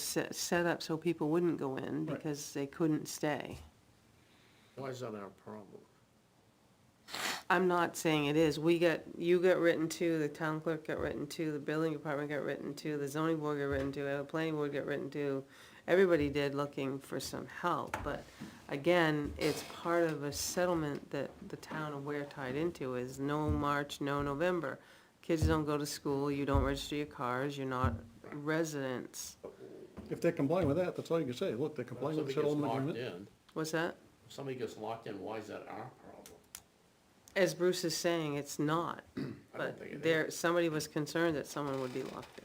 set, set up so people wouldn't go in Right. because they couldn't stay. Why is that our problem? I'm not saying it is. We got, you got written to, the town clerk got written to, the building department got written to, the zoning board got written to, the planning board got written to. Everybody did looking for some help, but again, it's part of a settlement that the town of Ware tied into is no March, no November. Kids don't go to school, you don't register your cars, you're not residents. If they comply with that, that's all you can say. Look, they comply If with the somebody gets settlement locked agreement. in, What's that? if somebody gets locked in, why is that our problem? As Bruce is saying, it's not, I don't but think it is. there, somebody was concerned that someone would be locked in.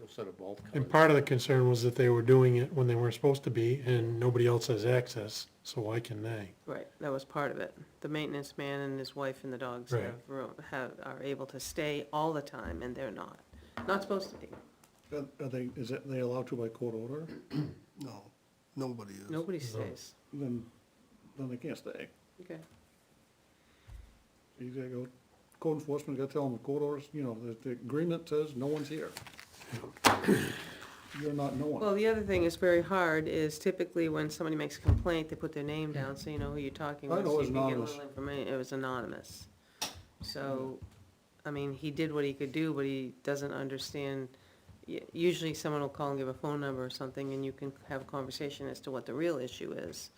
Put a set of bolt And cutters. part of the concern was that they were doing it when they weren't supposed to be, and nobody else has access, so why can they? Right, that was part of it. The maintenance man and his wife and the dogs Right. have room, have, are able to stay all the time, and they're not. Not supposed to be. Are are they, is that, they allowed to by court order? No, nobody is. Nobody stays. Then, then they can't stay. Okay. You gotta go, code enforcement, gotta tell them the court orders, you know, the, the agreement says no one's here. You're not no Well, one. the other thing that's very hard is typically when somebody makes a complaint, they put their name down, so you know who you're talking I with. know so it's you can get a anonymous. little informa- It was anonymous. So, I mean, he did what he could do, but he doesn't understand. y- Usually someone will call and give a phone number or something, and you can have a conversation as to what the real issue is.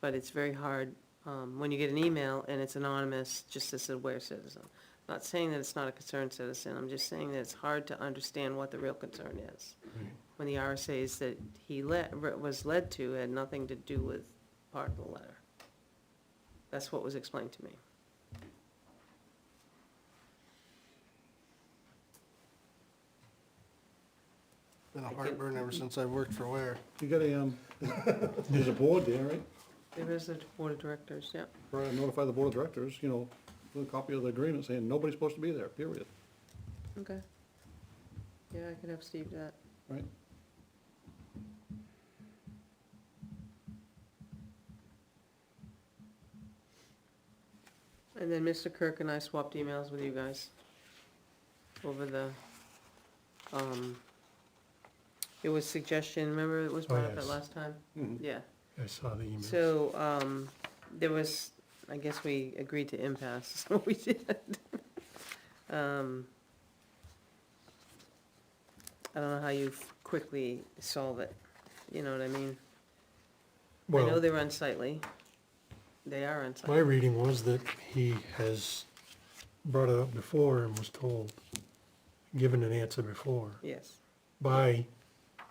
But it's very hard, um, when you get an email and it's anonymous, just as a aware citizen. Not saying that it's not a concerned citizen, I'm just saying that it's hard to understand what the real concern is. When the RSA's that he led, was led to had nothing to do with part of the letter. That's what was explained to me. Been a heartburn ever since I worked for Ware. You gotta, um, there's a board there, right? There is a board of directors, yeah. Or notify the board of directors, you know, with a copy of the agreement saying nobody's supposed to be there, period, Okay. Yeah, I could have Steve do that. right? And then Mr. Kirk and I swapped emails with you guys over the, um, it was suggestion, remember it was Oh, brought up at yes. last time? Mhm. Mm-hmm. Yeah. I saw the email. So, um, there was, I guess we agreed to impasse, is what we did. Um, I don't know how you quickly solve it, you know what I mean? I know Well, they're unsightly. They are my unsightly. reading was that he has brought it up before and was told, given an answer before, Yes, by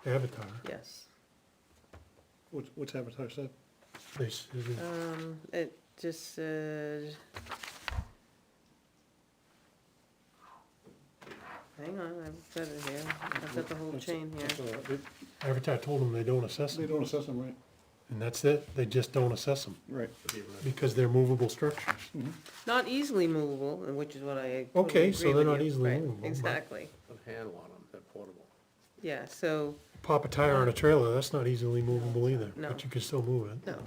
Avatar. yes. What's, what's advertised said? They said, Um, it just said. Hang on, I've got it here. I've got the whole That's- chain here. that's all right. They- Avatar told them they don't assess They them, don't assess them, right? and that's it, they just don't assess them, Right. because they're movable structures. Not easily movable, and which is what I. totally Okay, so agree they're with not you. easily Right, movable, but- Exactly, Put a handle on them, they're portable. yeah, so, Pop a tire on a trailer, that's not easily movable either, No. but you can still move it. no.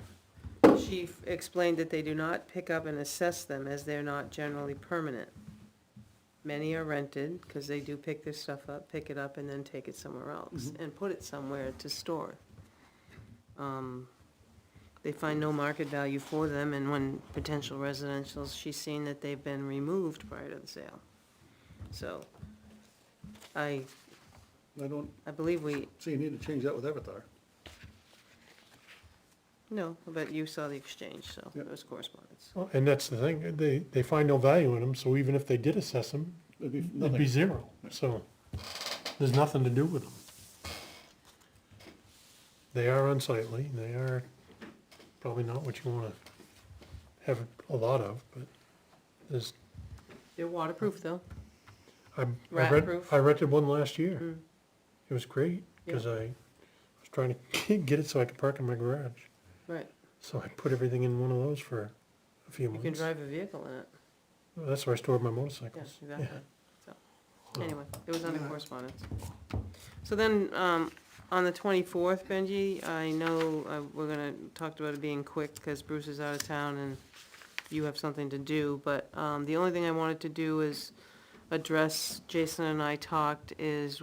She f- explained that they do not pick up and assess them as they're not generally permanent. Many are rented, because they do pick their stuff up, pick it up and then take it somewhere else, Mm-hmm. and put it somewhere to store. Um, They find no market value for them, and when potential residentials, she's seen that they've been removed prior to the sale. So, I, I don't I believe we see you need to change that with Avatar. No, but you saw the exchange, so Yep. it was correspondence. Well, And that's the thing, they, they find no value in them, so even if they did assess them, It'd be it'd be nothing. zero, so there's nothing to do with them. They are unsightly, they are probably not what you wanna have a lot of, but there's, They're waterproof, though. I, I Rat rent, proof. I rented one last year. Mm. It was great, cause I was trying to get it so I could park in my garage, Right. so I put everything in one of those for a few You months. can drive a vehicle in it. That's where I stored my Yeah, motorcycles. exactly. So, anyway, it was under Yeah. correspondence. So then, um, on the twenty-fourth, Benji, I know, uh, we're gonna, talked about it being quick, because Bruce is out of town and you have something to do, but, um, the only thing I wanted to do is address, Jason and I talked, is